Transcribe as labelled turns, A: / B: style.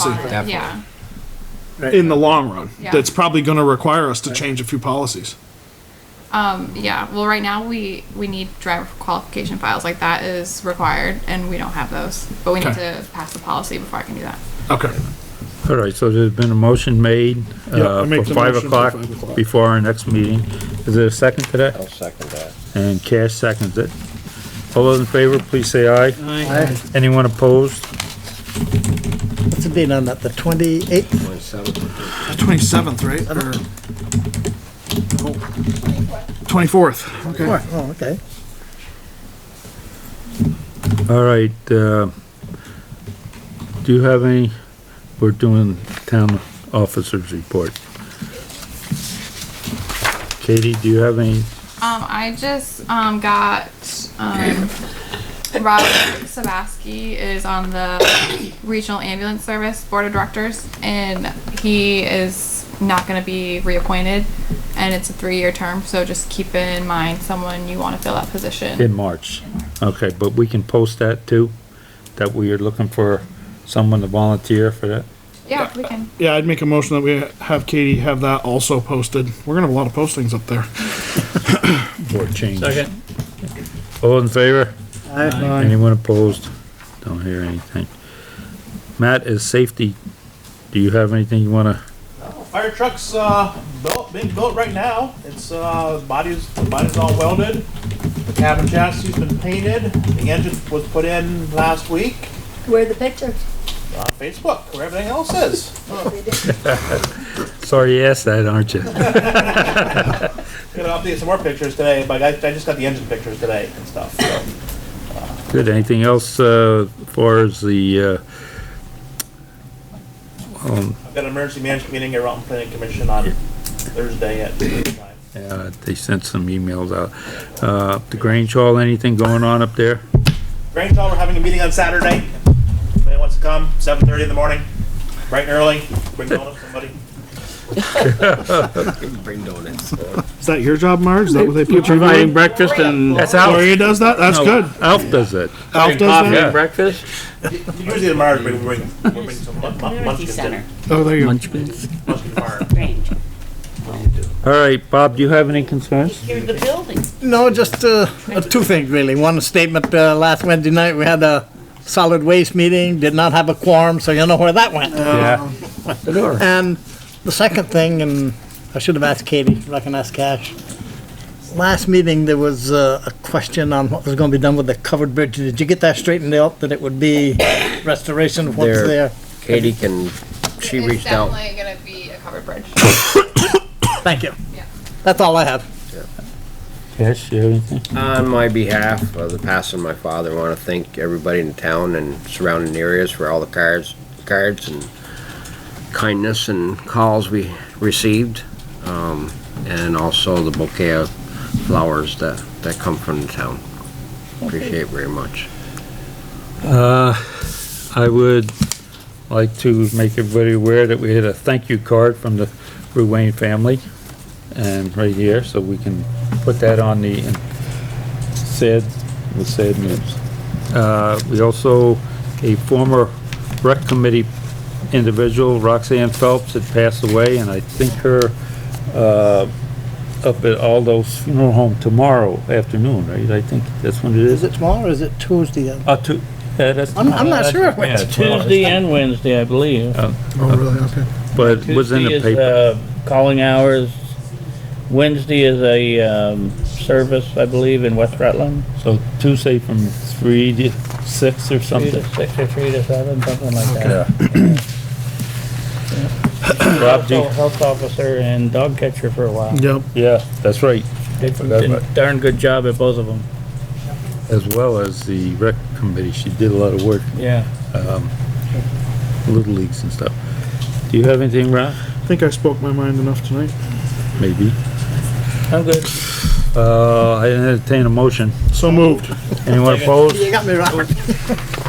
A: policy
B: Yeah,
A: in the long run.
B: Yeah.
A: That's probably going to require us to change a few policies.
B: yeah. Well, right now we we need driver qualification files. Like that is required, and we don't have those. But we need
A: Okay.
B: to pass the policy before I can do that.
A: Okay.
C: All right, so there's been a motion made,
A: Yeah, I
C: uh,
A: make
C: for
A: the
C: five
A: motion for
C: o'clock,
A: five o'clock.
C: before our next meeting. Is there a second to that?
D: I'll second that.
C: And Cash seconds it. All those in favor, please say aye.
E: Aye.
C: Anyone opposed?
E: What's the date on that, the 28th?
A: Twenty seventh, right? Or twenty fourth. Okay.
E: Oh, okay.
C: All right, uh, do you have any, we're doing town officers report. Katie, do you have any?
B: Um, I just um got um Rob Sabaski is on the regional ambulance service board of directors, and he is not going to be reappointed, and it's a three-year term. So just keep in mind someone you want to fill that position.
C: In March. Okay, but we can post that too, that we are looking for someone to volunteer for that.
B: yeah, we can.
A: Yeah, I'd make a motion that we have Katie have that also posted. We're gonna have a lot of postings up there.
C: Or change. Second. All in favor?
E: Aye.
C: Anyone opposed? Don't hear anything. Matt, is safety, do you have anything you wanna,
F: Fire truck's uh, built, being built right now. It's uh, body's the body's all welded. The cabin chassis's been painted. The engine was put in last week.
G: Where the picture?
F: On Facebook, where everything else is.
C: sorry you asked that, aren't you?
F: Gonna update some more pictures today, but I, I just got the engine pictures today and stuff. So.
C: Good, anything else, uh, far as the, uh, um,
F: I've got an emergency management meeting at Rockland Planning Commission on Thursday at. 9.
C: uh, they sent some emails out. Uh, the Grange Hall, anything going on up there?
F: Grange Hall, we're having a meeting on Saturday. If anyone wants to come, 7:30 in the morning, bright and early. Bring donuts, somebody.
D: Bring donuts.
A: Is that your job, Marge? Is that what they put you
H: Providing
A: on?
H: breakfast and
C: That's Alf.
A: Gloria does that? That's good.
C: Oh, Alf does that.
H: coffee
A: Alf does that?
C: Yeah.
H: and breakfast.
F: Usually tomorrow, we bring, we bring some mun- mun-
G: Community
F: munchkins
G: center,
F: in.
A: Oh, there you go.
F: Munchkin tomorrow.
G: Grange.
C: All right, Bob, do you have any concerns?
G: Here's the building.
E: No, just uh, uh, two things really. One statement, uh, last Wednesday night, we had a solid waste meeting, did not have a quorum, so you know where that went.
C: Yeah.
E: And the second thing, and I should have asked Katie, if I can ask Cash. Last meeting, there was uh, a question on what was going to be done with the covered bridge. Did you get that straightened out, that it would be restoration of what's
D: There.
E: there?
D: Katie can, she
B: it's
D: reached out.
B: definitely going to be a covered bridge.
E: Thank you.
B: Yeah.
E: That's all I have.
C: Yes, you have anything?
D: On my behalf of the passing of my father, I want to thank everybody in town and surrounding areas for all the cards, cards and kindness and calls we received. Um, and also the bouquet of flowers that, that come from the town. Appreciate very much.
C: Uh, I would like to make everybody aware that we had a thank you card from the Ruane family. And right here, so we can put that on the um, said, the said news. Uh, we also, a former rec committee individual, Roxanne Phelps, had passed away and I think her, uh, up at Aldo's funeral home tomorrow afternoon, right? I think that's when it is.
E: Is it tomorrow or is it Tuesday?
C: Uh, two, yeah, that's.
E: I'm- I'm not sure.
C: Yeah, it's tomorrow.
H: Tuesday and Wednesday, I believe.
A: Oh, really? Okay.
C: But it was in
H: Tuesday
C: the
H: is,
C: paper.
H: uh, Calling hours. Wednesday is a, um, service, I believe, in West Rutland.
C: uh, So Tuesday from three to six
H: Three
C: or
H: to
C: something.
H: six or three to seven, something like that.
C: Rob, do
H: Also
C: you-
H: health officer and dog catcher for a while.
A: Yep.
C: yeah, that's right.
H: Did
C: forgot
H: did
C: about-
H: darn good job at both of them.
C: As well as the rec committee. She did a lot of work,
H: Yeah.
C: little leagues and stuff. Do you have anything, Rob?
A: I think I spoke my mind enough tonight.
C: Maybe.
H: I'm good.
C: Uh, I entertain a motion.
A: So moved.
C: Anyone opposed?
E: You got me, Robert.